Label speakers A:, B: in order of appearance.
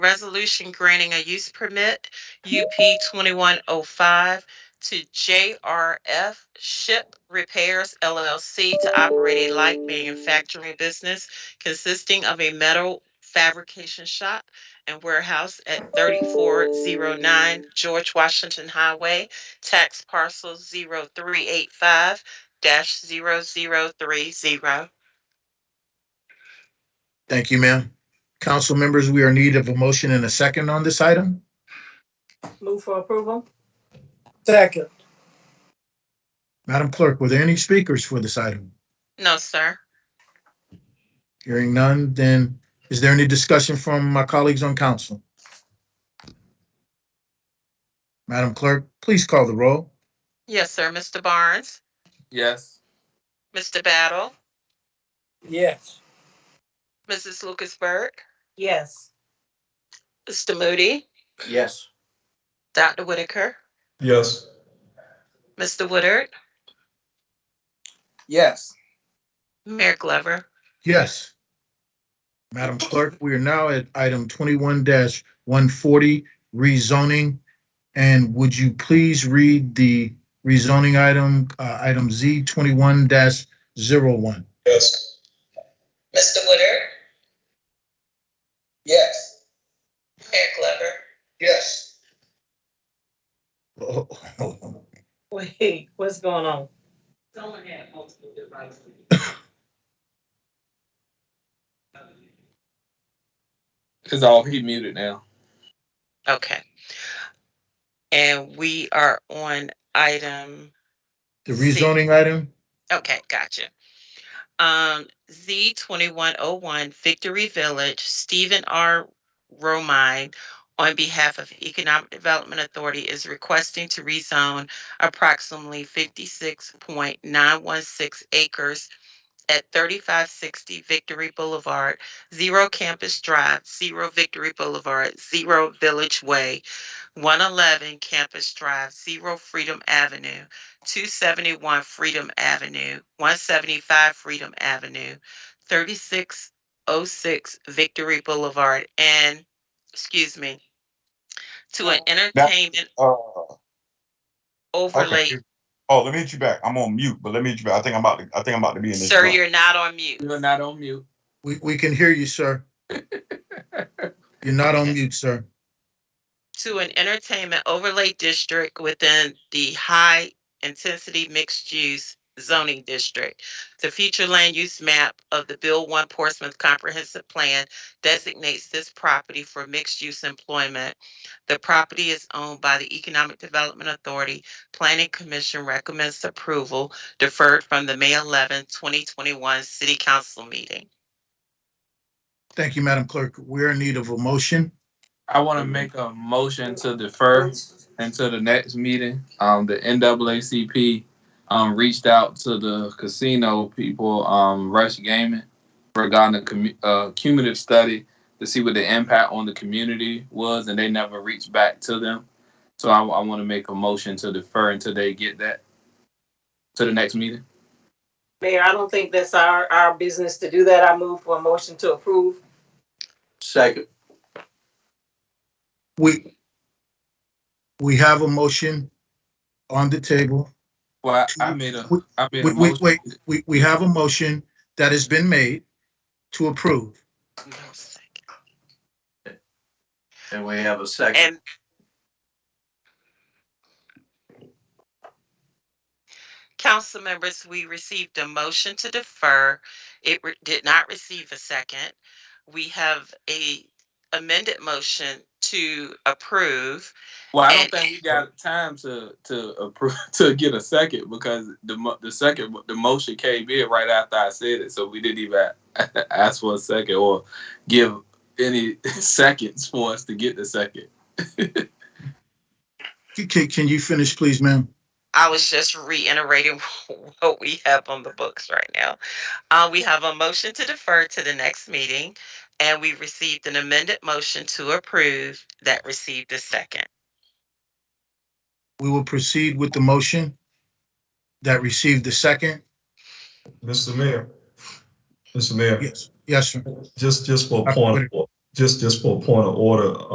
A: resolution granting a use permit, UP 2105, to JRF Ship Repairs LLC to operate a light manufacturing business consisting of a metal fabrication shop and warehouse at 3409 George Washington Highway, tax parcel 0385-0030.
B: Thank you, ma'am. Council members, we are in need of a motion and a second on this item.
C: Move for approval. Second.
B: Madam Clerk, were there any speakers for this item?
A: No, sir.
B: Hearing none, then is there any discussion from my colleagues on council? Madam Clerk, please call the roll.
A: Yes, sir. Mr. Barnes,
D: Yes.
A: Mr. Battle,
C: Yes.
A: Mrs. Lucas Burke,
C: Yes.
A: Mr. Moody,
D: Yes.
A: Dr. Whitaker,
D: Yes.
A: Mr. Woodard,
D: Yes.
A: Mayor Glover.
B: Yes. Madam Clerk, we are now at item twenty-one one forty, rezoning. And would you please read the rezoning item, uh, item Z twenty-one dash zero one?
D: Yes.
A: Mr. Woodard,
D: Yes.
A: Mayor Glover.
D: Yes.
C: Wait, what's going on?
A: Someone had multiple devices.
D: It's all he muted now.
A: Okay, and we are on item,
B: The rezoning item?
A: okay, gotcha. Um, Z twenty-one oh one Victory Village, Stephen R. Romine, on behalf of Economic Development Authority, is requesting to rezone approximately fifty-six point nine one six acres at thirty-five sixty Victory Boulevard, zero Campus Drive, zero Victory Boulevard, zero Village Way, one eleven Campus Drive, zero Freedom Avenue, 271 Freedom Avenue, 175 Freedom Avenue, 3606 Victory Boulevard, and, excuse me, to an entertainment
E: Uh,
A: overlay.
E: okay. Oh, let me hit you back. I'm on mute, but let me hit you back. I think I'm about to, I think I'm about to be in this.
A: Sir,
E: run.
A: you're not on mute.
D: You're not on mute.
B: We, we can hear you, sir. You're not on mute, sir.
A: To an entertainment overlay district within the high intensity mixed use zoning district. The future land use map of the Bill One Portsmouth Comprehensive Plan designates this property for mixed use employment. The property is owned by the Economic Development Authority. Planning Commission recommends approval deferred from the May 11, 2021 City Council meeting.
B: Thank you, Madam Clerk. We're in need of a motion.
D: I want to make a motion to defer until the next meeting. Um, the NAACP um reached out to the casino people, um, Rush Gaming, regarding the commu- uh, cumulative study to see what the impact on the community was, and they never reached back to them. So I, I want to make a motion to defer until they get that to the next meeting.
C: Mayor, I don't think that's our, our business to do that. I move for a motion to approve.
D: Second.
B: We, we have a motion on the table.
D: Well, I, I made a,
B: Wait,
D: I made a
B: wait, wait,
D: motion.
B: wait. We, we have a motion that has been made to approve.
F: And we have a second.
A: And council members, we received a motion to defer. It re- did not receive a second. We have a amended motion to approve.
D: Well, I don't
A: And-
D: think we got time to to approve to get a second because the mo- the second the motion came in right after I said it, so we didn't even ask for a second or give any seconds for us to get the second.
B: Can- Can, can you finish, please, ma'am?
A: I was just reiterating what we have on the books right now. Uh, we have a motion to defer to the next meeting, and we received an amended motion to approve that received a second.
B: We will proceed with the motion that received the second.
G: Mr. Mayor, Mr. Mayor,
B: Yes, yes, sir.
G: just, just for a
B: Dr.
G: point,
B: Whitaker.
G: of or-
E: Just, just for a point of order,